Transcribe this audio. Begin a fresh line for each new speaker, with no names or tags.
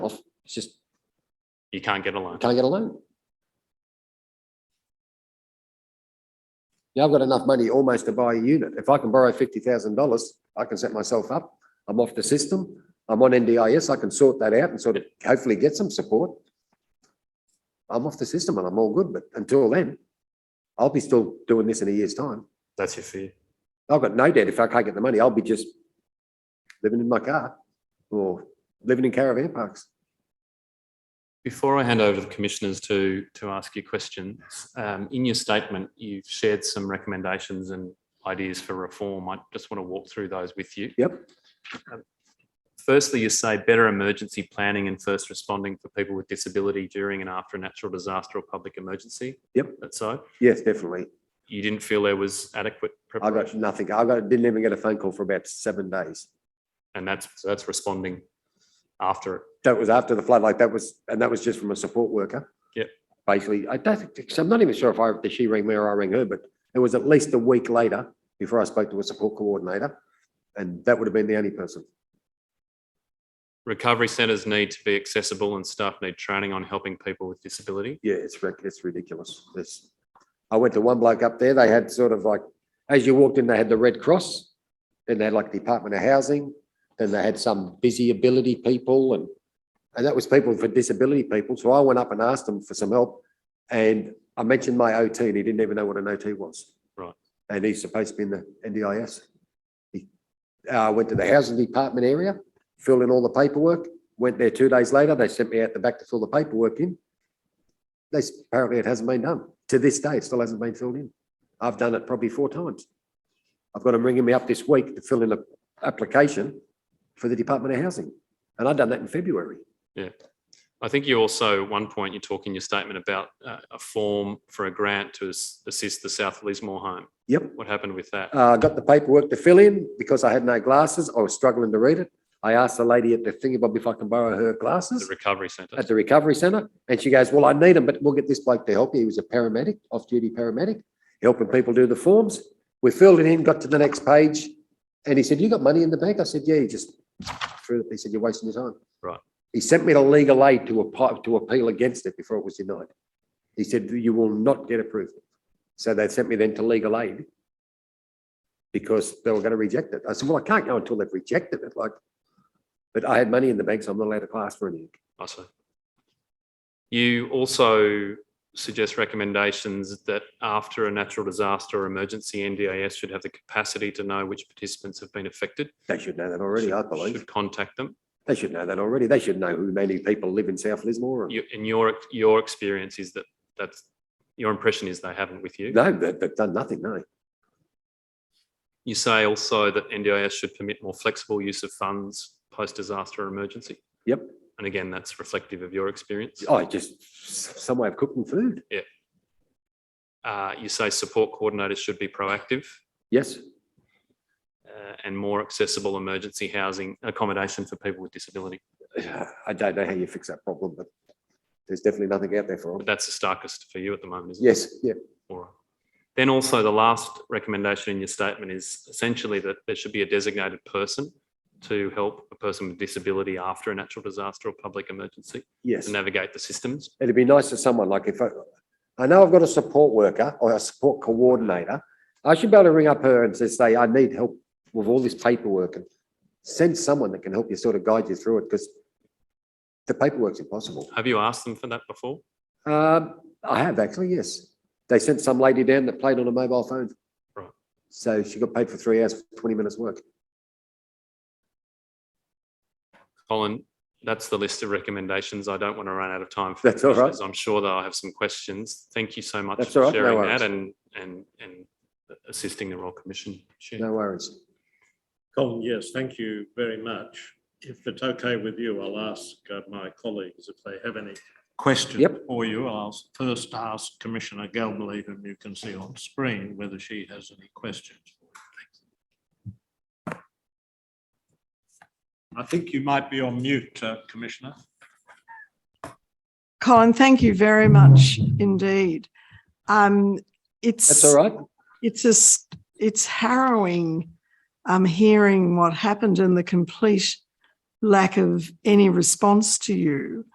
It's just,
You can't get a loan.
can I get a loan? Yeah, I've got enough money almost to buy a unit. If I can borrow fifty thousand dollars, I can set myself up. I'm off the system. I'm on NDIS. I can sort that out and sort of hopefully get some support. I'm off the system and I'm all good, but until then, I'll be still doing this in a year's time.
That's your fear.
I've got no debt. If I can't get the money, I'll be just living in my car or living in caravan parks.
Before I hand over to the commissioners to, to ask you questions, um, in your statement, you've shared some recommendations and ideas for reform. I just want to walk through those with you.
Yep.
Um, Firstly, you say better emergency planning and first responding for people with disability during and after a natural disaster or public emergency.
Yep.
That's so.
Yes, definitely.
You didn't feel there was adequate
I got
preparation
nothing. I got, didn't even get a phone call for about seven days.
and that's, so that's responding after it.
That was after the flood, like that was, and that was just from a support worker.
Yep.
Basically, I don't, think- I'm not even sure if I, if she rang me or I rang her, but it was at least a week later before I spoke to a support coordinator. And that would have been the only person.
Recovery centres need to be accessible and staff need training on helping people with disability.
Yeah, it's, ric- it's ridiculous. This, I went to one bloke up there, they had sort of like, as you walked in, they had the Red Cross. Then they had like Department of Housing, then they had some busy ability people and, and that was people for disability people. So I went up and asked them for some help. And I mentioned my OT and he didn't even know what an OT was.
Right.
And he's supposed to be in the NDIS. He, uh, went to the housing department area, filled in all the paperwork, went there two days later, they sent me out the back to fill the paperwork in. They, s- apparently it hasn't been done. To this day, it still hasn't been filled in. I've done it probably four times. I've got them ringing me up this week to fill in a application for the Department of Housing. And I've done that in February.
I think you also, at one point, you talk in your statement about uh, a form for a grant to as- assist the South Lismore home.
Yep.
What happened with that?
Uh, I got the paperwork to fill in because I had no glasses. I was struggling to read it. I asked the lady at the thingy bob if I can borrow her
The
glasses
recovery centre?
at the recovery center. And she goes, well, I need them, but we'll get this bloke to help you. He was a paramedic, off-duty paramedic, helping people do the forms. We filled it in, got to the next page. And he said, you got money in the bank? I said, yeah, he just threw it. He said, you're wasting your time.
Right.
He sent me to legal aid to appeal, to appeal against it before it was denied. He said, you will not get approved. So they sent me then to legal aid because they were going to reject it. I said, well, I can't go until they've rejected it, like. But I had money in the bank, so I'm not allowed to class for anything.
I see. You also suggest recommendations that after a natural disaster or emergency, NDIS should have the capacity to know which participants have been affected.
They should know that already, I believe.
Should contact them.
They should know that already. They should know who many people live in South Lismore. and-
You- In your, your experience is that, that's, your impression is they haven't with you?
No, they- they've done nothing, no.
You say also that NDIS should permit more flexible use of funds post-disaster or emergency.
Yep.
And again, that's reflective of your experience.
Oh, just s- some way of cooking food.
Uh, You say support coordinators should be proactive
Yes,
uh, and more accessible emergency housing accommodation for people with disability.
I don't know how you fix that problem, but there's definitely nothing out there for
But
them.
that's the starkest for you at the moment, isn't it?
Yes, yeah,
All right. Then also the last recommendation in your statement is essentially that there should be a designated person to help a person with disability after a natural disaster or public emergency
yes.
to navigate the systems.
It'd be nice for someone, like if I, I know I've got a support worker or a support coordinator. I should be able to ring up her and just say, I need help with all this paperwork and send someone that can help you sort of guide you through it because the paperwork's impossible.
Have you asked them for that before?
Um, I have actually, yes. They sent some lady down that played on a mobile phone.
Right.
So she got paid for three hours, for twenty minutes work.
Colin, that's the list of recommendations. I don't want to run out of time. for
That's all right.
questions. I'm sure that I have some questions. Thank you so much
That's all right, no
for sharing that
worries.
and, and, and assisting the Royal Commission. Chair.
No worries.
Colin, yes, thank you very much. If it's okay with you, I'll ask uh, my colleagues if they have any questions
Yep.
for you. I'll s- first ask Commissioner Galbally, whom you can see on screen, whether she has any questions. I think you might be on mute, uh, Commissioner.
Colin, thank you very much indeed. Um, it's
That's all right.
it's just it's harrowing um, hearing what happened and the complete lack of any response to you.